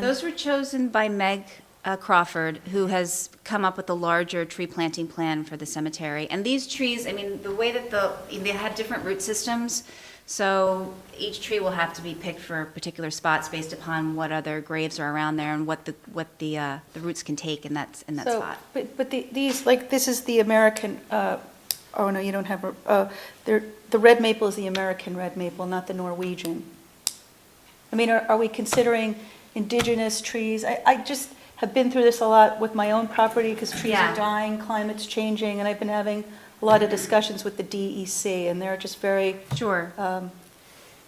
Those were chosen by Meg uh, Crawford, who has come up with a larger tree planting plan for the cemetery. And these trees, I mean, the way that the, they had different root systems, so each tree will have to be picked for particular spots based upon what other graves are around there and what the, what the, uh, the roots can take in that, in that So, spot. But, but the- these, like, this is the American, uh, oh, no, you don't have, a- uh, there- the red maple is the American red maple, not the Norwegian. I mean, are are we considering indigenous trees? I, I just have been through this a lot with my own property, because trees Yeah. are dying, climate's changing, and I've been having a lot of discussions with the DEC, and they're just very, Sure. um,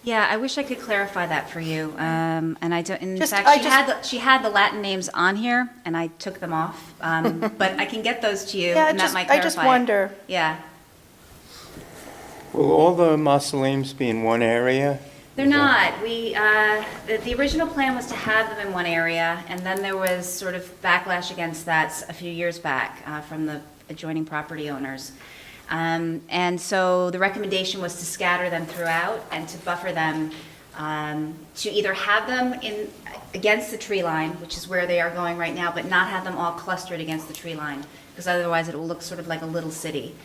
Yeah, I wish I could clarify that for you. Um, and I don't, in Just- fact, I she just- had, the- she had the Latin names on here and I took them off. Um, but I can get those to you yeah, I and that just, might I clarify just it. wonder. Yeah, Will all the mausoleums be in one area? they're not. We, uh, the, the original plan was to have them in one area, and then there was sort of backlash against that s- a few years back uh, from the adjoining property owners. Um, and so the recommendation was to scatter them throughout and to buffer them, um, to either have them in, against the tree line, which is where they are going right now, but not have them all clustered against the tree line, because otherwise it will look sort of like a little city.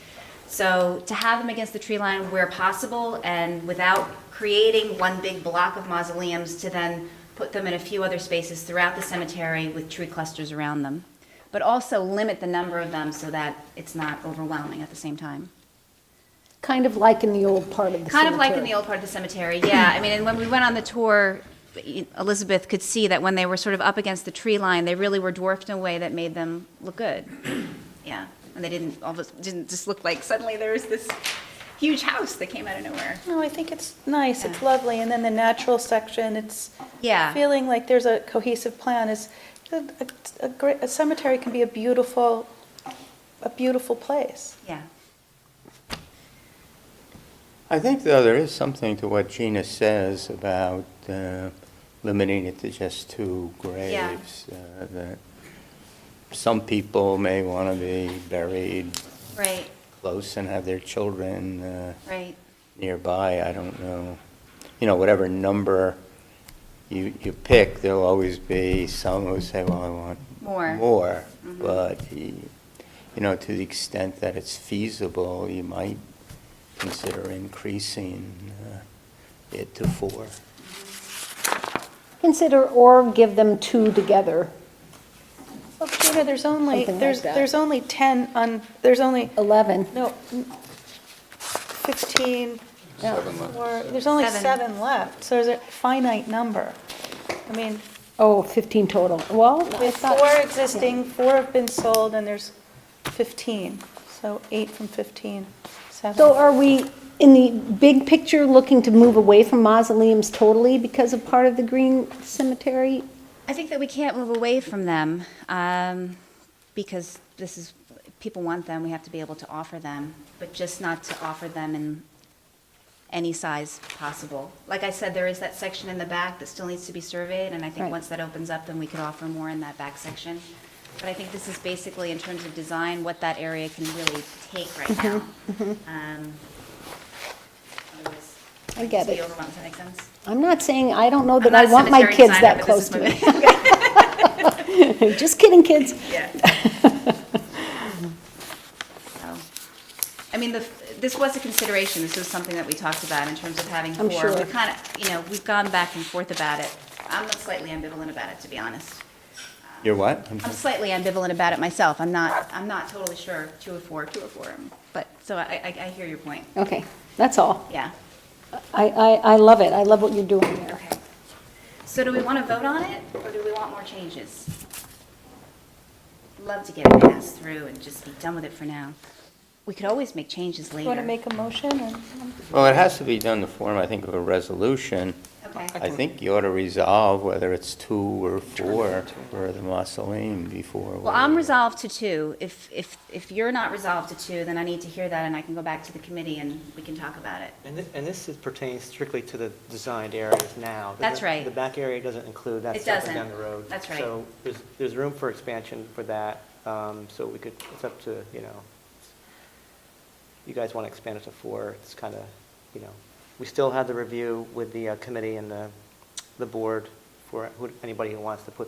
So to have them against the tree line where possible and without creating one big block of mausoleums to then put them in a few other spaces throughout the cemetery with tree clusters around them. But also limit the number of them so that it's not overwhelming at the same time. Kind of like in the old part of the Kind of like in cemetery. the old part of the cemetery, yeah. I mean, and when we went on the tour, Elizabeth could see that when they were sort of up against the tree line, they really were dwarfed in a way that made them look good. Yeah, and they didn't, all of a- didn't just look like suddenly there was this huge house that came out of nowhere. No, I think it's nice, it's lovely, and then the natural section, it's Yeah. feeling like there's a cohesive plan is, a, a- a great, a cemetery can be a beautiful, a beautiful place. Yeah. I think, though, there is something to what Gina says about uh, limiting it to just two graves. uh, That some people may want to be buried Right, close and have their children uh, right. nearby, I don't know. You know, whatever number you, you pick, there'll always be some who say, well, I want More. More, Mhm. but, y- you know, to the extent that it's feasible, you might consider increasing uh, it to four. Consider or give them two together, Well, Gina, there's only, Something like there's, that. there's only 10 on, there's only, 11. no, mm, 15, Yeah. or, there's only Seven. seven left, so there's a finite number. I mean, Oh, 15 total. Well, I with thought- four existing, four have been sold, and there's 15, so eight from 15, seven. So are we, in the big picture, looking to move away from mausoleums totally because of part of the green cemetery? I think that we can't move away from them um, because this is, people want them, we have to be able to offer them, but just not to offer them in any size possible. Like I said, there is that section in the back that still needs to be surveyed, and I think Right. once that opens up, then we could offer more in that back section. But I think this is basically, in terms of design, what that area can really take right Mm-hmm. now. Um, otherwise, I get it's be it. overwhelmed. Does that make sense? I'm not saying, I don't know I'm that not I a want my cemetery kids designer, that but this close to is me. Just kidding, kids. Yeah. So, I mean, the, this was a consideration, this was something that we talked about in terms of having I'm 4 sure. We kind of, you know, we've gone back and forth about it. I'm slightly ambivalent about it, to be honest. You're what? I'm I'm sorry. slightly ambivalent about it myself, I'm not, I'm not totally sure, two or four, two or four, but, so I, I, I hear your point, Okay, that's all. yeah. I, I, I love it. I love what you're doing there. Okay. So do we want to vote on it, or do we want more changes? Love to get it passed through and just be done with it for now. We could always make changes later. Want to make a motion, or? Well, it has to be done in the form, I think, of a resolution. Okay. I think you ought to resolve whether it's two or four for the mausoleum before. Well, I'm we- resolved to two. If, if, if you're not resolved to two, then I need to hear that, and I can go back to the committee and we can talk about it. And thi- and this is pertains strictly to the designed areas now. The- That's right. The back area doesn't include that It stuff doesn't. down the road. That's right. So there's, there's room for expansion for that, um, so we could, it's up to, you know, you guys want to expand it to four, it's kind of, you know, we still have the review with the uh, committee and the, the board for who- anybody who wants to put